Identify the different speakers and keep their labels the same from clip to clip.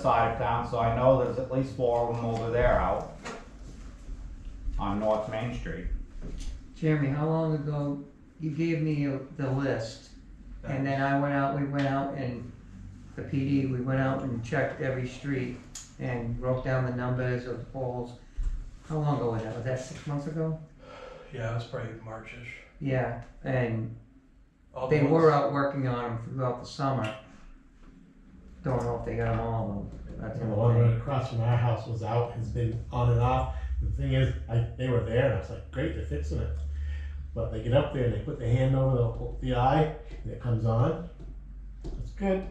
Speaker 1: side of town, so I know there's at least four of them over there out on North Main Street.
Speaker 2: Jeremy, how long ago, you gave me a- the list, and then I went out, we went out and, the PD, we went out and checked every street and wrote down the numbers of the poles. How long ago was that? Was that six months ago?
Speaker 3: Yeah, that's probably Marchish.
Speaker 2: Yeah, and
Speaker 3: All the
Speaker 2: they were
Speaker 3: ones-
Speaker 2: out working on them throughout the summer. Don't know if they got them all, though. That's
Speaker 4: The
Speaker 2: another
Speaker 4: one
Speaker 2: thing.
Speaker 4: right across from our house was out, has been on and off. The thing is, I, they were there and I was like, great, they're fixing it. But they get up there and they put their hand over the, the eye and it comes on. It's good.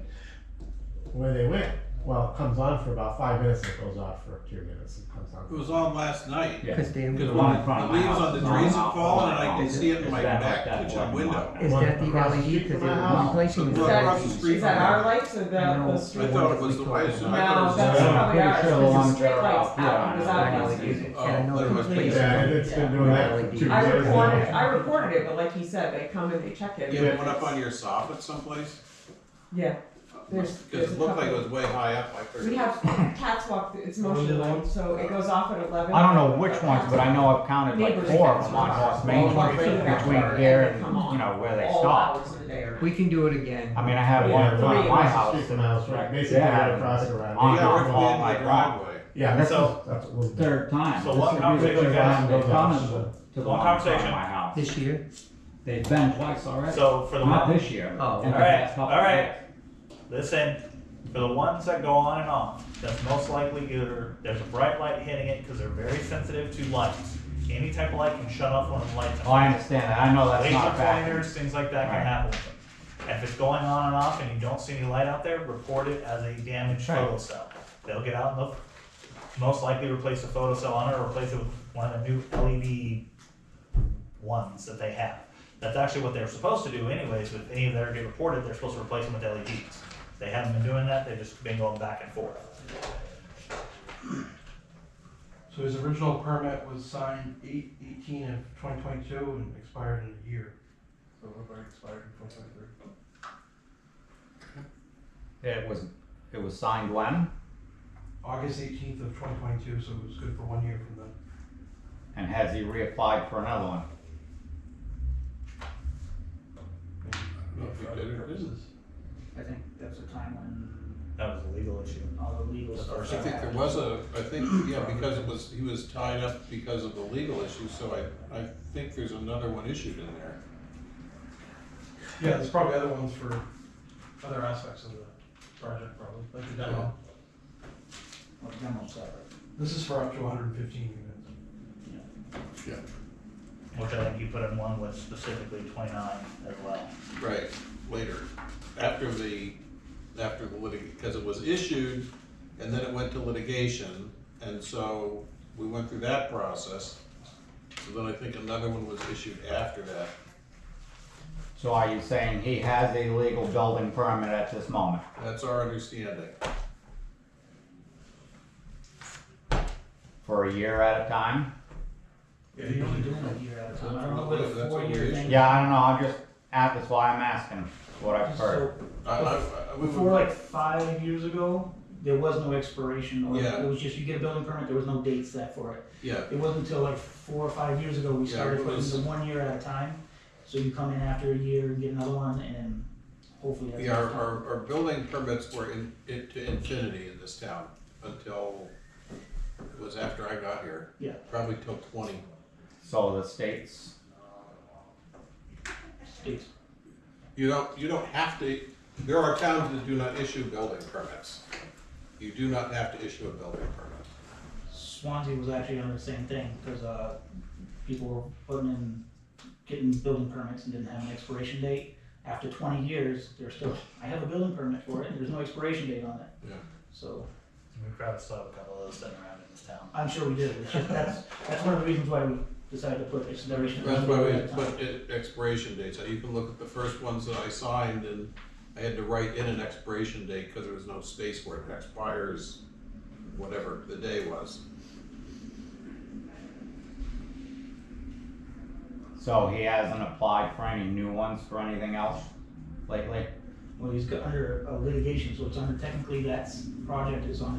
Speaker 4: Where they went, well, it comes on for about five minutes, it goes off for two minutes, it comes
Speaker 5: It
Speaker 4: on.
Speaker 5: was on last night.
Speaker 1: Yeah.
Speaker 2: Cause they,
Speaker 1: The
Speaker 2: is
Speaker 5: Good.
Speaker 1: one in front of
Speaker 5: The
Speaker 1: my
Speaker 5: leaves
Speaker 1: house
Speaker 5: on the
Speaker 1: is on
Speaker 5: trees
Speaker 1: and
Speaker 5: have
Speaker 1: off.
Speaker 5: fallen, and I can
Speaker 1: It's-
Speaker 5: see it in
Speaker 1: it's
Speaker 5: my
Speaker 1: been
Speaker 5: back
Speaker 1: like that
Speaker 5: kitchen
Speaker 1: for a
Speaker 5: window.
Speaker 1: while.
Speaker 2: that the
Speaker 4: Across the
Speaker 2: LED,
Speaker 4: street
Speaker 2: cause
Speaker 4: from
Speaker 2: they
Speaker 4: my
Speaker 2: were
Speaker 4: house.
Speaker 2: replacing
Speaker 5: Right across the
Speaker 2: the. E
Speaker 5: street
Speaker 6: Is that
Speaker 5: from
Speaker 6: our
Speaker 5: it.
Speaker 6: lights or that
Speaker 2: No.
Speaker 6: the
Speaker 5: I
Speaker 6: street?
Speaker 5: thought it
Speaker 6: No,
Speaker 5: was the way, I
Speaker 2: No,
Speaker 5: thought it
Speaker 6: that's
Speaker 5: was.
Speaker 4: Yeah.
Speaker 6: probably
Speaker 1: I'm
Speaker 6: ours,
Speaker 1: pretty sure
Speaker 6: 'cause
Speaker 1: the
Speaker 6: the
Speaker 1: ones that
Speaker 6: street
Speaker 1: are out
Speaker 6: lights out,
Speaker 1: here
Speaker 6: it was
Speaker 1: are not
Speaker 6: out last
Speaker 1: LEDs.
Speaker 6: night.
Speaker 5: Oh,
Speaker 2: Yeah, I know
Speaker 5: that
Speaker 2: they
Speaker 5: must be-
Speaker 2: replaced
Speaker 4: Yeah,
Speaker 2: them.
Speaker 4: and it's been doing that for two
Speaker 2: Yeah.
Speaker 6: I
Speaker 4: years
Speaker 6: reported,
Speaker 4: now.
Speaker 6: I reported it, but like he said, they come and they check it.
Speaker 5: You had one up on your soffit someplace?
Speaker 6: Yeah, There's-
Speaker 5: Because
Speaker 6: there's a
Speaker 5: it looked like it
Speaker 6: couple.
Speaker 5: was way high up, I
Speaker 6: we
Speaker 5: figured.
Speaker 6: have cats walk, it's motion light, so it goes off at eleven.
Speaker 1: I don't know which ones, but I know I've counted like
Speaker 6: Neighbors'
Speaker 1: four of
Speaker 6: cats
Speaker 1: them
Speaker 6: walk
Speaker 1: on North
Speaker 6: off.
Speaker 1: Main
Speaker 6: All walk
Speaker 1: Street
Speaker 6: right back
Speaker 1: between
Speaker 6: there,
Speaker 1: here
Speaker 6: they
Speaker 1: and,
Speaker 6: come on
Speaker 1: you know, where they
Speaker 6: all
Speaker 1: stop.
Speaker 6: hours of the day or-
Speaker 2: We can do it again.
Speaker 1: I mean, I have one in
Speaker 4: Yeah,
Speaker 1: front of
Speaker 6: three
Speaker 1: my
Speaker 4: across
Speaker 1: house.
Speaker 4: the street from my house, right, basically
Speaker 1: Yeah.
Speaker 4: right across the
Speaker 1: On
Speaker 5: You
Speaker 4: road.
Speaker 1: the
Speaker 5: got ripped
Speaker 1: wall,
Speaker 5: into
Speaker 1: like
Speaker 5: the
Speaker 1: that.
Speaker 5: driveway.
Speaker 4: Yeah, that's,
Speaker 7: So-
Speaker 4: that's what we'll do.
Speaker 1: Third time.
Speaker 7: So what
Speaker 1: This is
Speaker 7: conversation
Speaker 1: really the
Speaker 7: guys
Speaker 1: time they've
Speaker 4: have
Speaker 1: come
Speaker 4: about?
Speaker 1: to the
Speaker 7: What
Speaker 1: one in front of
Speaker 7: conversation?
Speaker 1: my house.
Speaker 2: This year?
Speaker 1: They've been twice already.
Speaker 7: So for the
Speaker 1: Not
Speaker 7: one,
Speaker 1: this year.
Speaker 2: Oh.
Speaker 1: in the
Speaker 7: All right,
Speaker 1: past couple
Speaker 7: all right.
Speaker 1: years.
Speaker 7: listen, for the ones that go on and off, that's most likely either there's a bright light hitting it because they're very sensitive to lights. Any type of light can shut off when the lights.
Speaker 1: Oh, I understand that. I know that's not a
Speaker 7: Laser
Speaker 1: fact.
Speaker 7: pointers, things like that can
Speaker 1: Right.
Speaker 7: happen with them. And if it's going on and off and you don't see any light out there, report it as a damaged
Speaker 1: Right.
Speaker 7: photo cell. They'll get out and they'll most likely replace the photo cell on it or replace it with one of the new LED ones that they have. That's actually what they're supposed to do anyways, but if any of that get reported, they're supposed to replace them with LEDs. They haven't been doing that, they've just been going back and forth.
Speaker 3: So his original permit was signed eight, eighteen of twenty twenty-two and expired in a year. So it already expired in twenty twenty-three.
Speaker 1: It was, it was signed when?
Speaker 3: August eighteenth of twenty twenty-two, so it was good for one year from then.
Speaker 1: And has he reapplied for another one?
Speaker 5: know if we
Speaker 3: For
Speaker 5: did
Speaker 3: other
Speaker 5: or didn't.
Speaker 3: purposes.
Speaker 8: I think that's a time when
Speaker 7: That was a legal issue.
Speaker 8: all the legal
Speaker 7: The
Speaker 8: stuff.
Speaker 7: first
Speaker 5: I think there was a, I think, yeah, because it was, he was tied up because of the legal issue, so I, I think there's another one issued in there.
Speaker 3: Yeah, there's probably other ones for other aspects of the project probably, like the demo.
Speaker 8: Or demo stuff.
Speaker 3: This is for up to hundred and fifteen units.
Speaker 5: Yeah.
Speaker 7: Which I think you put in one with specifically twenty-nine as well.
Speaker 5: Right, later, after the, after the litig, because it was issued, and then it went to litigation, and so we went through that process. So then I think another one was issued after that.
Speaker 1: So are you saying he has a legal building permit at this moment?
Speaker 5: That's our understanding.
Speaker 1: For a year at a time?
Speaker 3: Yeah,
Speaker 8: You're
Speaker 3: usually
Speaker 8: only
Speaker 3: do.
Speaker 8: doing a year at a time.
Speaker 5: I don't
Speaker 8: I don't know
Speaker 5: know
Speaker 8: what
Speaker 5: if that's
Speaker 8: a four
Speaker 5: what
Speaker 8: year
Speaker 5: it is.
Speaker 8: thing.
Speaker 1: Yeah, I don't know, I'm just, at- that's why I'm asking what I've heard.
Speaker 8: So
Speaker 5: I, I, I- we
Speaker 8: before
Speaker 5: would,
Speaker 8: like five years ago, there was no expiration or
Speaker 5: Yeah.
Speaker 8: it was just you get a building permit, there was no date set for it.
Speaker 5: yeah,
Speaker 8: It wasn't until like four or five years ago we
Speaker 5: Yeah,
Speaker 8: started
Speaker 5: it
Speaker 8: putting
Speaker 5: was-
Speaker 8: the one year at a time. So you come in after a year and get another one and hopefully that's.
Speaker 5: the, our,
Speaker 8: enough time.
Speaker 5: our, our building permits were in, in- to infinity in this town until, it was after I got here.
Speaker 8: Yeah.
Speaker 5: Probably till twenty.
Speaker 1: So the state's,
Speaker 8: It's-
Speaker 5: You don't, you don't have to, there are towns that do not issue building permits. You do not have to issue a building permit.
Speaker 8: Swansea was actually on the same thing, because, uh, people were putting in, getting building permits and didn't have an expiration date. After twenty years, they're still, I have a building permit for it, and there's no expiration date on it.
Speaker 5: Yeah.
Speaker 8: So,
Speaker 7: We probably still have a couple of those sitting around in this town.
Speaker 8: I'm sure we did, it's just, that's, that's one of the reasons why we decided to put expiration.
Speaker 5: That's why we
Speaker 8: at a time.
Speaker 5: put i- expiration dates, you can look at the first ones that I signed and I had to write in an expiration date because there was no space where it expires, whatever the day was.
Speaker 1: so he hasn't applied for any new ones for anything else lately?
Speaker 8: Well, he's got under uh, litigation, so it's under, technically that's, project is under